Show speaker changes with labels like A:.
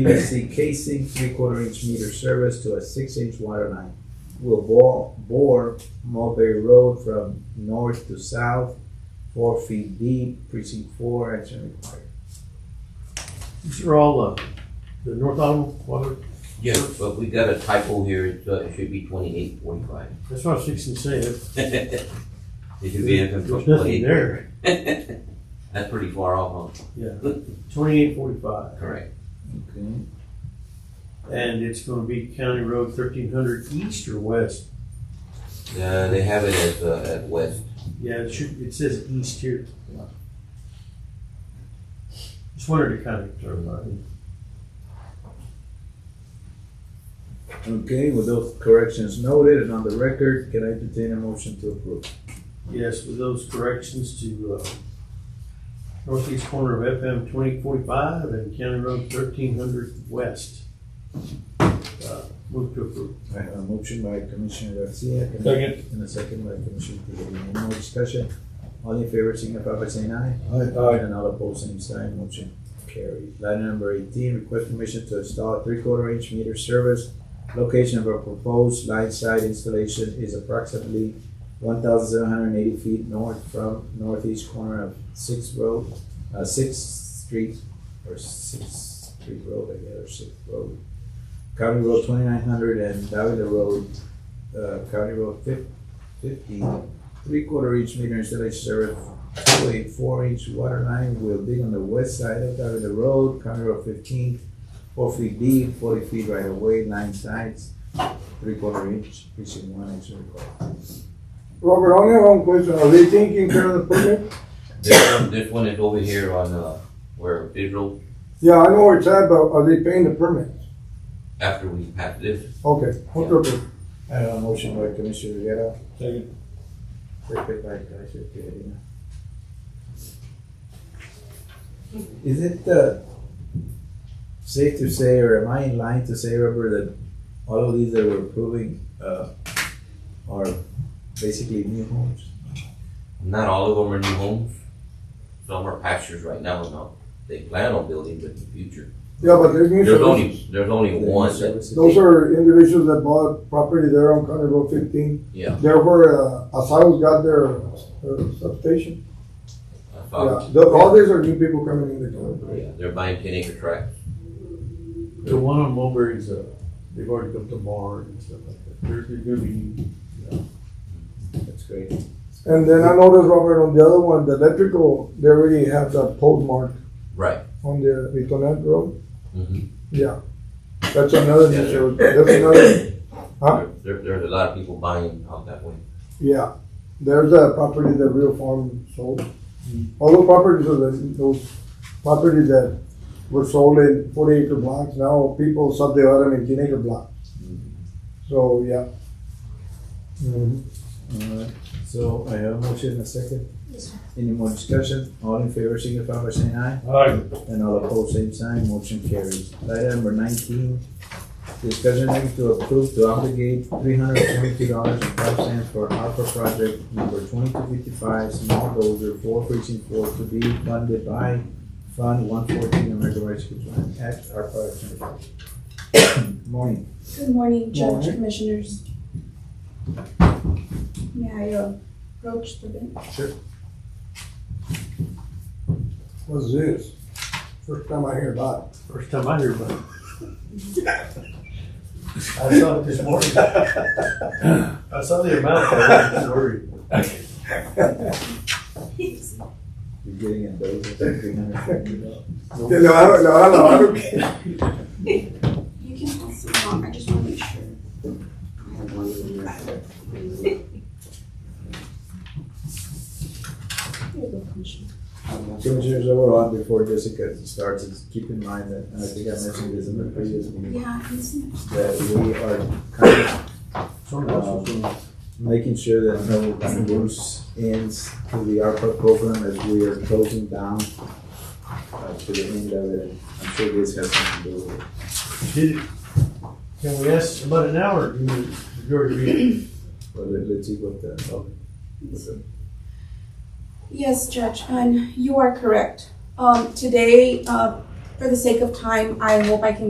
A: PVC casing, three-quarter inch meter service to a six-inch water line. Will bore, bore Mulberry Road from north to south, four feet deep, precinct four, action required.
B: These are all the, the North Alamo water,
C: Yeah, but we got a typo here, It's, uh, it should be twenty-eight forty-five.
B: that's what I was fixing to say, There-
C: It should be in
B: there's
C: twenty-eight.
B: nothing there.
C: That's pretty far off, huh?
B: Yeah, twenty-eight forty-five,
C: Correct.
A: Okay.
B: and it's gonna be County Road thirteen hundred east or west?
C: Uh, they have it as, uh, at west.
B: Yeah, it should, it says east here. Just wanted to kind of clarify.
A: Okay, with those corrections noted and on the record, can I entertain a motion to approve?
B: Yes, with those corrections to, uh, northeast corner of FM twenty forty-five and County Road thirteen hundred west. Uh, Move to approve.
A: I have a motion by Commissioner Garcia. can I-
B: Second.
A: And a second by Commissioner Tejeda. Any more discussion? All in favor, signify by saying aye.
B: Aye.
A: And all opposed, same sign, motion carries. Item number eighteen, request permission to install three-quarter inch meter service. Location of our proposed line side installation is approximately one thousand seven hundred and eighty feet north from northeast corner of Sixth Road, uh, Sixth Street, or Sixth Street Road, I guess, or Sixth Road. County Road twenty-nine hundred and Davila Road, uh, County Road fif- fifty, three-quarter inch meter installation service to a four-inch water line will be on the west side of Davila Road, County Road fifteen, four feet deep, forty feet right away, nine sides, three-quarter inch, precinct one, action required.
D: Robert, only have one question. Are they taking care of the permit?
C: This one, this one is over here on, uh, where Bidrow,
D: Yeah, I know where it's at, but are they paying the permit?
C: after we pass this,
D: Okay, what's the permit?
A: I have a motion by Commissioner Rivera. Second. Second by Commissioner Tejeda. Is it, uh, safe to say, or am I in line to say, Robert, that all of these that we're approving, uh, are basically new homes?
C: not all of them are new homes. Some are pastures right now, no, they plan on building but in the future.
D: Yeah, but there's new
C: There's
D: service.
C: only, there's only one that,
D: Those are individuals that bought property there on County Road fifteen.
C: yeah.
D: There where, uh, Asados got their, their substation.
C: I
D: Yeah,
C: thought-
D: the- all these are new people coming in the county.
C: Yeah, they're buying ten acre tracts.
B: The one on Mulberry's, uh, they've already built a barn and stuff like that. There's, there's gonna be,
A: That's great.
D: And then I noticed, Robert, on the other one, the electrical, they already have that pole mark
C: Right.
D: on the Vitonet Road.
C: Mhm.
D: Yeah, that's another new
C: Yeah.
D: service. That's another, huh?
C: There, there- there's a lot of people buying out that way.
D: Yeah, there's a property that real farm sold. All the properties are the, those properties that were sold in forty acre blocks, now people subdivide them in ten acre blocks. So, yeah. Mhm.
A: Alright, so I have a motion and a second. Any more discussion? All in favor, signify by saying aye. And all opposed, same sign, motion carries. Item number nineteen, discussion act to approve to obligate three hundred twenty-two dollars and five cents for ARPA project number twenty-two fifty-five, small dozer, four precinct four, to be funded by Fund one fourteen American Rescue Plan Act, ARPA. Action Plan. Morning.
E: Good morning, Judge,
D: Morning.
E: Commissioners. May I uh, approach the bench?
D: What's this? First time I hear about it.
B: first time I hear about it. I saw it this morning. I saw the amount, I was worried.
A: You're getting a dozer for three hundred twenty dollars.
D: Yeah, No, I don't, no, I don't, I don't care.
E: You can pass them on, I just want to make sure. I have one in there. Here you go, Commissioner.
A: Commissioners, overall, before Jessica starts, is keep in mind that, and I think I mentioned this in the previous meeting,
E: Yeah, I can see.
A: that we are kind of
B: Sort of, so-
A: making sure that no loose ends to the ARPA program as we are closing down uh, to the end of it. I'm sure this has something to do with it.
B: Did it, can we ask about an hour, you mean, you're to be,
A: But let- let's see what the, what the
E: Yes, Judge, and you are correct. Um, today, uh, for the sake of time, I hope I can